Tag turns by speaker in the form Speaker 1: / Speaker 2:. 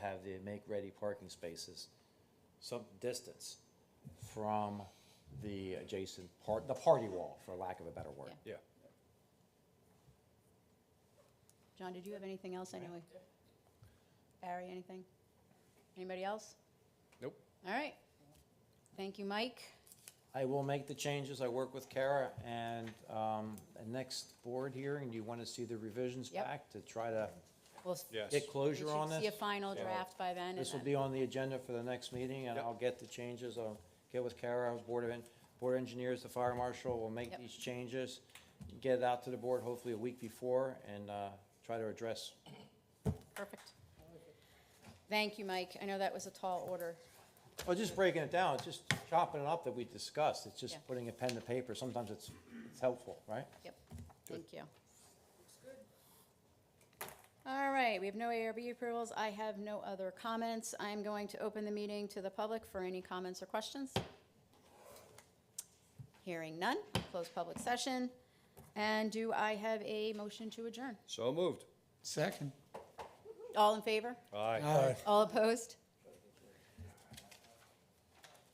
Speaker 1: make ready parking spaces some distance from the adjacent part, the party wall, for lack of a better word.
Speaker 2: Yeah.
Speaker 3: John, did you have anything else anyway? Barry, anything? Anybody else?
Speaker 2: Nope.
Speaker 3: All right. Thank you, Mike.
Speaker 1: I will make the changes. I work with Kara and, um, the next board hearing, you want to see the revisions
Speaker 3: Yep.
Speaker 1: back to try to
Speaker 3: We'll s-
Speaker 2: Yes.
Speaker 1: get
Speaker 3: we
Speaker 1: closure on
Speaker 3: should see a
Speaker 1: this?
Speaker 3: final
Speaker 2: Yeah.
Speaker 3: draft by then. and
Speaker 1: This will
Speaker 3: then-
Speaker 1: be on the agenda for the next meeting and
Speaker 2: Yep.
Speaker 1: I'll get the changes. I'll get with Kara, Board of, En- Board of Engineers, the fire marshal, we'll make
Speaker 3: Yep.
Speaker 1: these changes, get it out to the board hopefully a week before and, uh, try to address
Speaker 3: Perfect. Thank you, Mike. I know that was a tall order.
Speaker 1: Well, just breaking it down, it's just chopping it up that we discussed, it's just
Speaker 3: Yeah.
Speaker 1: putting a pen to paper, sometimes it's, it's helpful, right?
Speaker 3: Yep, thank you. All right, we have no ARB approvals. I have no other comments. I'm going to open the meeting to the public for any comments or questions. Hearing none, I'll close public session. And do I have a motion to adjourn?
Speaker 2: So moved.
Speaker 4: Second.
Speaker 3: All in favor?
Speaker 2: Aye.
Speaker 4: Aye.
Speaker 3: All opposed?